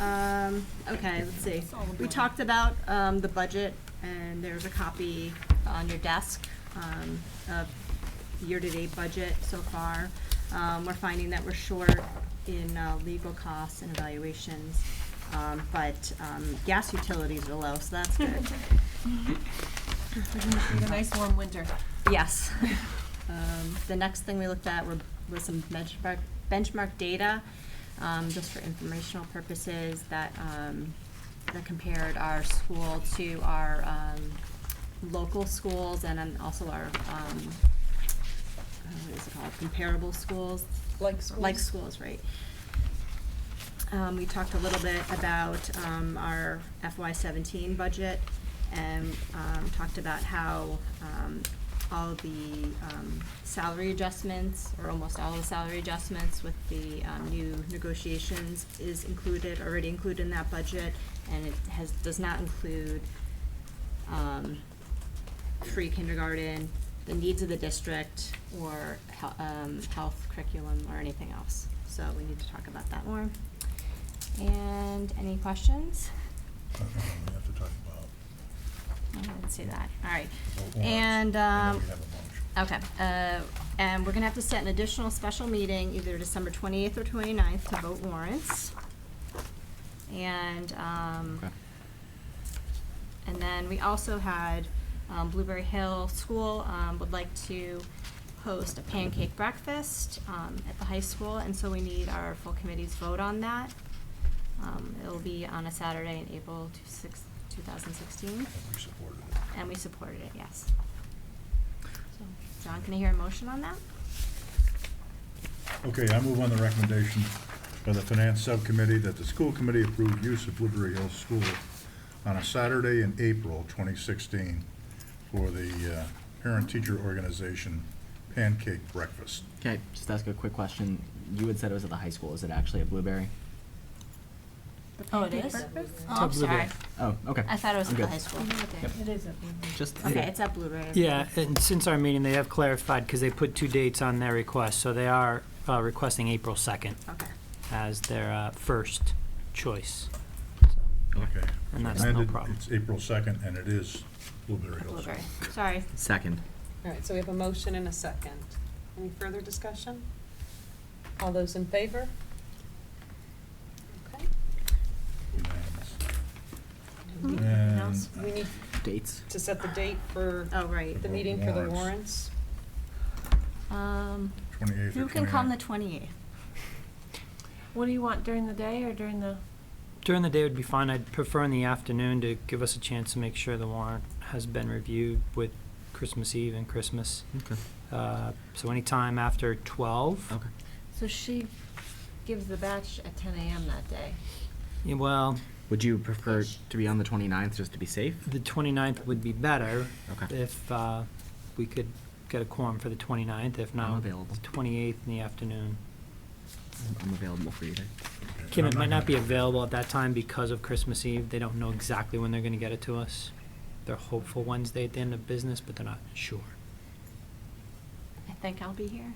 Um, okay, let's see. We talked about, um, the budget, and there's a copy on your desk, um, of year-to-date budget so far. Um, we're finding that we're short in, uh, legal costs and evaluations, um, but, um, gas utilities are low, so that's good. Need a nice warm winter. Yes. Um, the next thing we looked at were, was some benchmark, benchmark data, um, just for informational purposes that, um, that compared our school to our, um, local schools and then also our, um, uh, what is it called, comparable schools? Like schools. Like schools, right. Um, we talked a little bit about, um, our FY seventeen budget and, um, talked about how, um, all the, um, salary adjustments, or almost all the salary adjustments with the, um, new negotiations is included, already included in that budget, and it has, does not include, um, free kindergarten, the needs of the district, or hel- um, health curriculum, or anything else. So we need to talk about that more. And any questions? I don't know, we have to talk about. I didn't see that, all right. warrants. And, um, We have a motion. okay, uh, and we're gonna have to set an additional special meeting, either December twenty-eighth or 29th, to vote warrants. And, um, Okay. And then we also had um, Blueberry Hill School um, would like to host a pancake breakfast um, at the high school, and so we need our full committee's vote on that. Um, It'll be on a Saturday in April two six, two thousand sixteen, And we supported it. and we supported it, yes. So, John, can I hear a motion on that? Okay, I move on the recommendation by the Finance Subcommittee that the school committee approve use of Woodbury Hills School on a Saturday in April 2016 for the uh, parent-teacher organization pancake breakfast. Can I just ask a quick question? You had said it was at the high school. Is it actually at Blueberry? Oh, it is? Oh, I'm sorry. Oh, okay. I thought it was I'm at the good. high school. It is at Woodbury. Just Okay, it's at Blueberry. Yeah, and since our meeting, they have clarified, because they put two dates on their request, so they are uh, requesting April 2nd Okay. as their uh, first choice. Okay. And that's no Amended, problem. It's April 2nd, and it is Blueberry Hills. Blueberry, sorry. second. All right, so we have a motion and a second. Any further discussion? All those in favor? Okay. Unanimous. Anything else? And- We need Dates. to set the date for Oh, right. the meeting for the Warrants. warrants. Um, 28th or who can come the 29th. twenty-eighth? What do you want, during the day or during the? During the day would be fine. I'd prefer in the afternoon to give us a chance to make sure the warrant has been reviewed with Christmas Eve and Christmas. Okay. Uh, So anytime after 12, Okay. So she gives the batch at ten AM that day. Yeah, well, Would you prefer to be on the 29th just to be safe? the 29th would be better Okay. if uh, we could get a quorum for the 29th, if not, available. the 28th in the afternoon. I'm available for you. to- Okay, Kim, I'm it might gonna- not be available at that time because of Christmas Eve. They don't know exactly when they're gonna get it to us. They're hopeful Wednesday at the end of business, but they're not sure. I think I'll be here.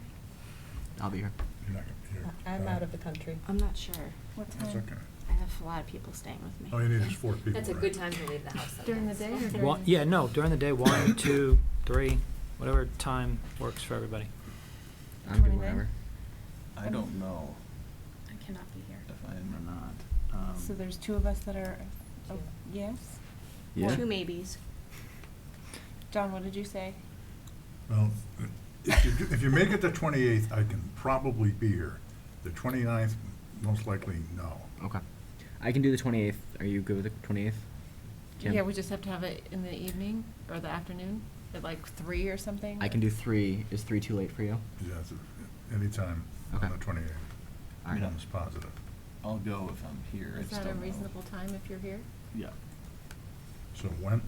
I'll be here. You're not gonna- you're- I'm uh, out of the country. I'm not sure. What That's okay. I have a lot of people staying with me. All Oh, you need is four people. That's a right? good time to leave the house. During the day or One, during? yeah, no, during the day, one, two, three, whatever time works for everybody. I'm good 29th? whenever. I don't know I cannot be here. if I am or not. Um, So there's two of us that are, oh, yes? Yeah. Two maybes. John, what did you say? Well, if you, do- if you make it the twenty-eighth, I can probably be here. The 29th, most likely, no. Okay. I can do the 28th. Are you good with the 28th? Kim? Yeah, we just have to have it in the evening or the afternoon, at like three or something? I can do three. Is three too late for you? Yes, anytime on Okay. the twenty-eighth. All right. Almost positive. I'll go if I'm here. I Is that just a don't know. reasonable time if you're here? Yeah. So when?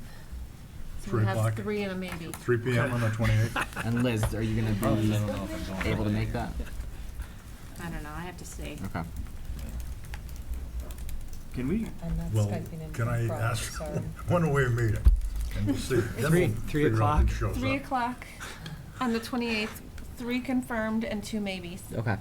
So Three we have o'clock? three and a maybe. Three P M on the twenty-eighth? And Liz, are you gonna Probably, I be don't know if I'm going able to that make day. that? I don't know, I have to see. Okay. Can we, I'm not Well, Skyping in can I from Prague, ask, sorry. one-way meeting, and we'll see. Then Three- we'll three figure out who o'clock? shows Three up. o'clock on the twenty-eighth, three confirmed and two maybes. Okay.